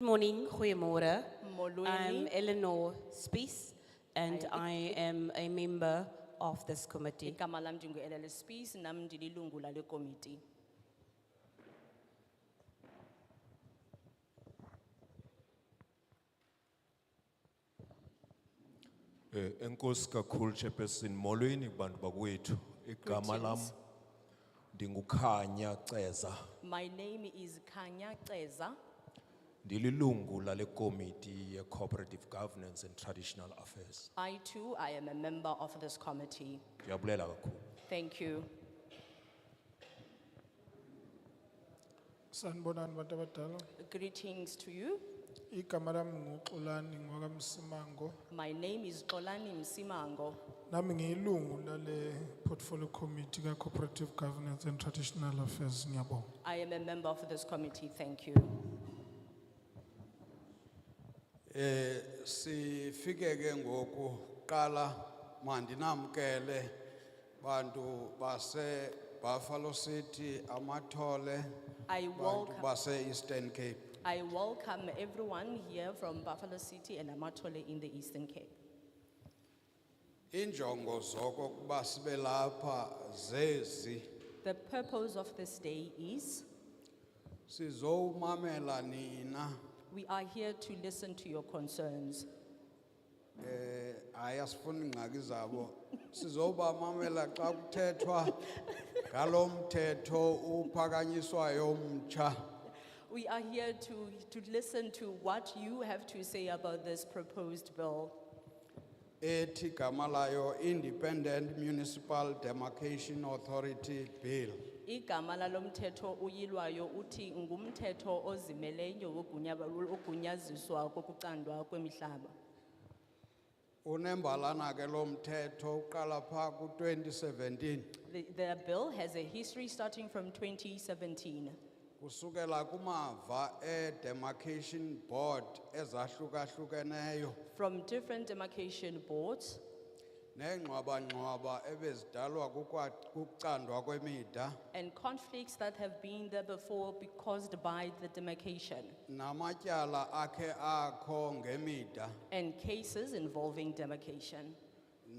Good Morning, goeiemorgen. I'm Molweni, Eleanor Spies and I am a member of this committee. igama lam ndingu-Ellen Spies, nam ndililungu lale komiti. Eh, enkosi kakhulu Chairperson, molweni kubantu bakwethu. Igama lam Greetings. ndinguKhanya Ceza, My name is Kanya Ceza, ndililungu lale committee ye Cooperative Governance and Traditional Affairs. I too, I am a member of this committee. Ndiyabulela kakhulu. Thank you. Sanibonani bantu abadala. Greetings to you, Igama lami nguxolani ngwakamsimango. my name is Xolani Msimango. Nami ngiyilungu lale portfolio committee ka cooperative governance and traditional affairs ngiyabonga. I am a member of this committee, thank you. Eh sifike ke ngoku qala mandinamkele bantu base Buffalo City amathole I bantu welcome, base Eastern Cape I welcome everyone here from Buffalo City and Amatole in the Eastern Cape. injongo zoko kuba sibe lapha zezi The purpose of this day is, sizowumamela nina we are here to listen to your concerns. eh ayasifuna ingxaki zabo sizobamamela xa kuthethwa ngalomthetho uphakanyiswayo umtsha We are here to, to listen to what you have to say about this proposed bill. ethi igama layo Independent Municipal Demarcation Authority Bill. Igama lalomthetho uyilwayo uthi ngumthetho ozimeleyo wogunyaba- wogunyaziswa kokucandwa kwemihlaba. Unembalana ke lo mthetho uqala pha ku-2017 The, the bill has a history starting from 2017. kusukela kumava e-demarcation board ezahlukahlukeneyo From different demarcation boards, neengxwabangxwaba ebezidalwa kukwa- kukucandwa kwemida and conflicts that have been there before be caused by the demarcation, namatyala akhe akho ngemida and cases involving demarcation.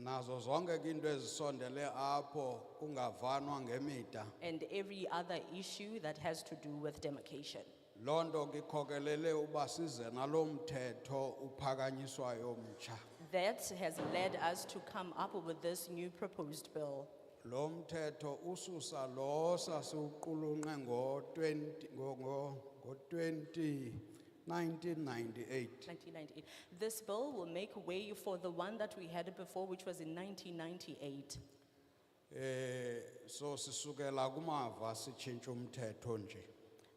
nazo zonke ke into ezisondele apho kungavanwa ngemida and every other issue that has to do with demarcation. Londo kikokelele ubasize nalomthetho uphakanyiswa yomcha. That has led us to come up with this new proposed bill. Lomthetho ususa losa sukulunga ngo twenty, ngo, ngo, ngo twenty nineteen ninety-eight. 1998. This bill will make way for the one that we had before, which was in 1998. Eh, so sisukela kumava sitshintsha umthetho nje.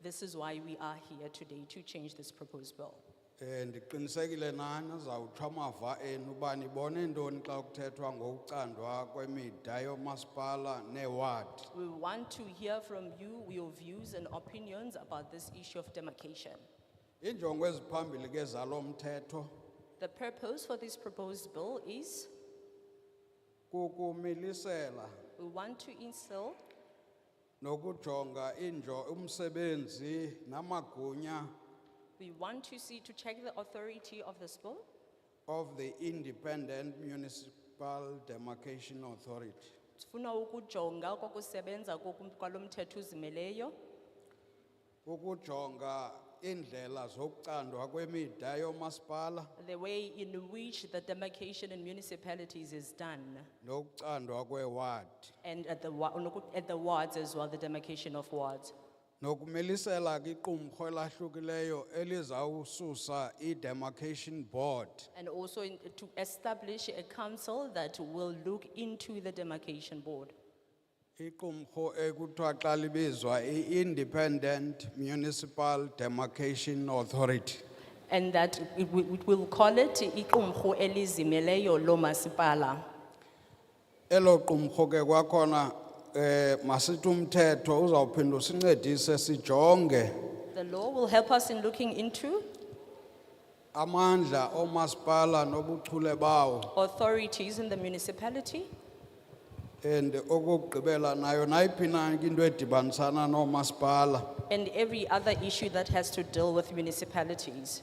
This is why we are here today to change this proposed bill. Eh, ndiqinisekile nani zawuthwa amava enu uba nibone ntoni xa kuthethwa ngokucandwa kwemida yomasipala newadi. We want to hear from you your views and opinions about this issue of demarcation. Injongo eziphambili ke zalomthetho The purpose for this proposed bill is kukumilisela we want to instill nokujonga injo umsebenzi namagunya We want to see, to check the authority of this bill of the Independent Municipal Demarcation Authority. Sifuna ukujonga kokusebenza kokum- kwalomthetho uzimeleyo, Ukujonga indlela zokucandwa kwemida yomasipala the way in which the demarcation in municipalities is done nokucandwa kwewadi. and at the, wa- noku- at the wards as well, the demarcation of wards. Nokumilisela kiqumrhu elahlukileyo elizawususa i-demarcation board And also in- to establish a council that will look into the demarcation board. Iqumho ekuthiwa xa libizwa i-Independent Municipal Demarcation Authority. And that it wi- we will call it iqumrhu elizimeleyo lomasipala. Elo qumho ke kwakhona eh masithi umthetho uzawuphinda usincedise sijonge The law will help us in looking into amandla omasipala nobuchule bawo authorities in the municipality And okokugqibela nayo nayiphi na into edibanisana noomasipala and every other issue that has to deal with municipalities.